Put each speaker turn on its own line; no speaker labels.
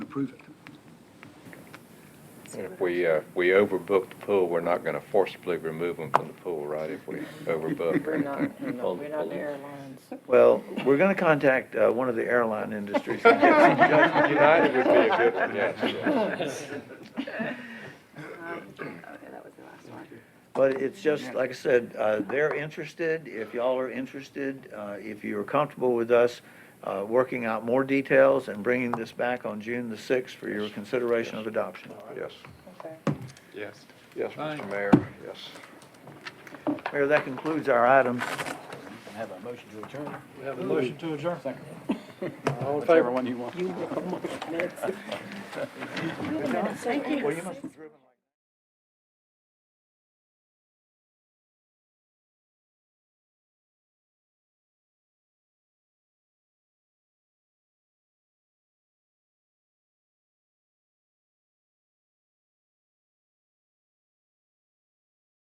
approve it.
And if we, uh, we
Um,
overbook the pool, we're not gonna forcibly remove them from the pool, right, if we overbook or
We're not,
anything?
we're not- we're not the airlines.
Well, we're gonna contact, uh, one of the airline industries. and get some judgment.
United would be a good
Um,
one,
oh,
yes.
Okay, oh, that was the last one.
But it's just, like I said, uh, they're interested, if y'all are interested, uh, if you're comfortable with us uh, working out more details and bringing this back on June the 6th for your consideration of adoption.
Yes,
Okay.
yes, yes,
Fine.
Mr. Mayor, yes.
Mayor, that concludes our items.
Have a motion to adjourn.
We have a motion to adjourn.
Second.
All in
Whichever
favor?
one you want.
You look at minutes.
Well, you must have driven-